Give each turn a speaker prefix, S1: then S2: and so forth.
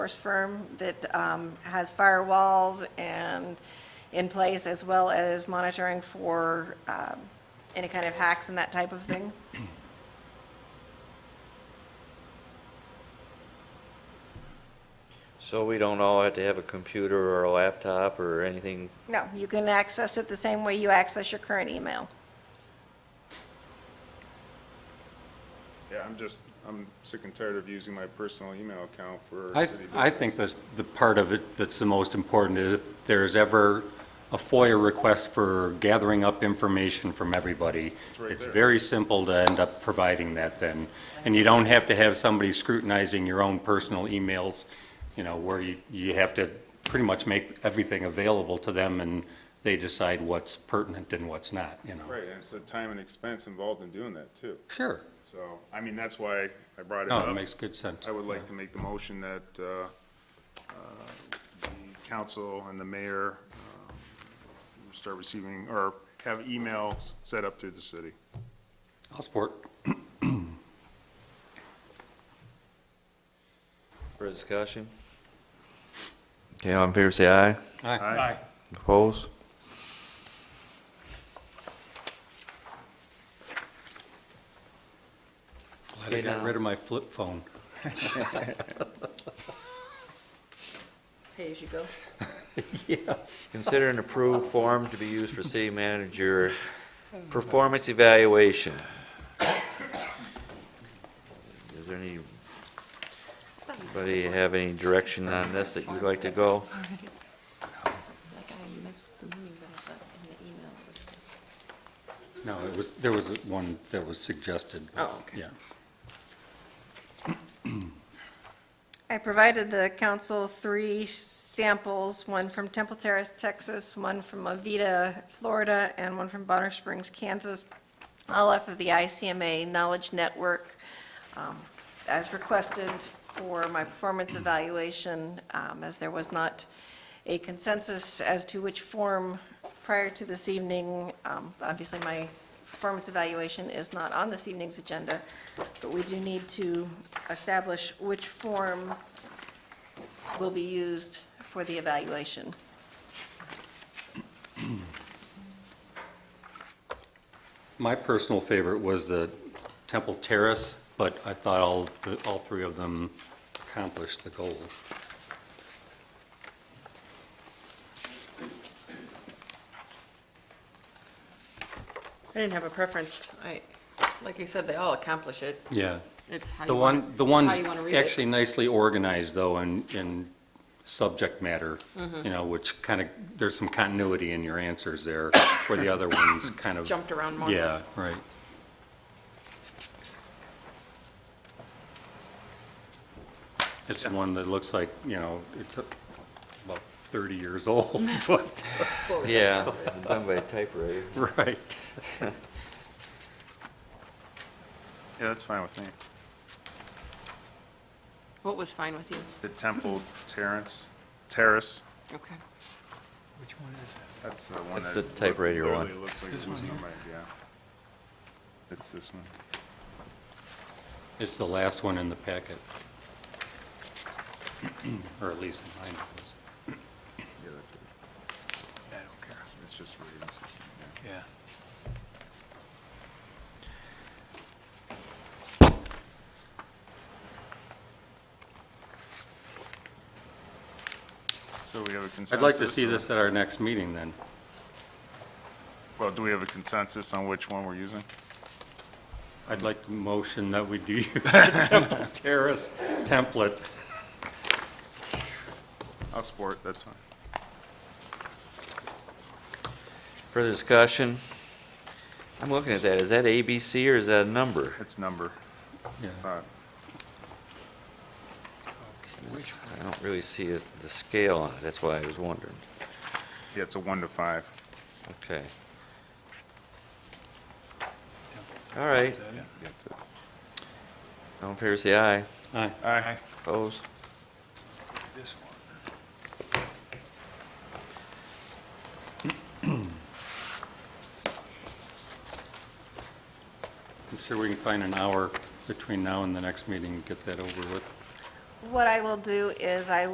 S1: Force firm that um, has firewalls and in place, as well as monitoring for um, any kind of hacks and that type of thing.
S2: So we don't all have to have a computer or a laptop or anything?
S1: No, you can access it the same way you access your current email.
S3: Yeah, I'm just, I'm sick and tired of using my personal email account for
S4: I,
S3: city
S4: I
S3: business.
S4: think the, the part of it that's the most important is if there's ever a FOIA request for gathering up information from everybody,
S3: right
S4: it's
S3: there.
S4: very simple to end up providing that then. And you don't have to have somebody scrutinizing your own personal emails, you know, where you, you have to pretty much make everything available to them and they decide what's pertinent and what's not, you know.
S3: Right, and it's the time and expense involved in doing that too.
S4: Sure.
S3: So, I mean, that's why I brought it
S4: No, it
S3: up.
S4: makes good sense.
S3: I would like to make the motion that uh, uh, the council and the mayor um, start receiving, or have emails set up through the city.
S4: I'll support.
S2: for discussion? Okay, all in favor, say aye.
S4: Aye.
S3: Aye.
S2: Opposed?
S4: Glad I got rid of my flip phone.
S1: Pay as you go.
S4: Yes.
S2: Consider an approved form to be used for city manager performance evaluation. Is there any, anybody have any direction on this that you'd like to go?
S5: Like I missed the move that I thought in the email.
S4: No,
S5: was-
S4: it was, there was one that was suggested.
S5: Oh, okay.
S4: Yeah.
S1: I provided the council three samples, one from Temple Terrace, Texas, one from Avita, Florida, and one from Bonner Springs, Kansas, all off of the ICMA Knowledge Network, um, as requested for my performance evaluation, um, as there was not a consensus as to which form prior to this evening. Um, Obviously, my performance evaluation is not on this evening's agenda, but we do need to establish which form will be used for the evaluation.
S4: My personal favorite was the Temple Terrace, but I thought all, all three of them accomplished the goal.
S5: I didn't have a preference. I, like you said, they all accomplish it.
S4: Yeah.
S5: It's how
S4: The
S5: you
S4: one,
S5: want,
S4: the
S5: how
S4: one's
S5: you want to read
S4: actually
S5: it.
S4: nicely organized though in, in subject matter,
S5: Mm-hmm.
S4: you know, which kind of, there's some continuity in your answers there, where the other ones kind of.
S5: Jumped around more.
S4: Yeah, right. It's the one that looks like, you know, it's uh, about 30 years old, but,
S5: Forward.
S2: Yeah, done by typewriter.
S4: right.
S3: Yeah, that's fine with me.
S5: What was fine with you?
S3: The Temple Terrace, Terrace,
S5: Okay.
S6: Which one is it?
S3: that's the one
S2: That's
S3: that.
S2: the typewriter one.
S3: Literally looks like it was numbered, yeah. It's this one.
S4: It's the last one in the packet. Or at least mine was.
S3: Yeah, that's it.
S6: I don't care.
S3: It's just reading system, yeah.
S6: Yeah.
S3: So we have a consensus?
S4: I'd like to see
S3: or-
S4: this at our next meeting then.
S3: Well, do we have a consensus on which one we're using?
S4: I'd like to motion that we do use the Temple Terrace template.
S3: I'll support, that's fine.
S2: Further discussion? I'm looking at that, is that ABC or is that a number?
S3: It's number.
S4: Yeah.
S3: Uh,
S6: Which one?
S2: I don't really see it- the scale on it, that's why I was wondering.
S3: Yeah, it's a one to five.
S2: Okay. All right,
S6: Is that it?
S3: That's it.
S2: all in favor, say aye.
S4: Aye.
S3: Aye.
S2: Opposed?
S6: This one.
S4: I'm sure we can find an hour between now and the next meeting and get that over with.
S1: what I will do is I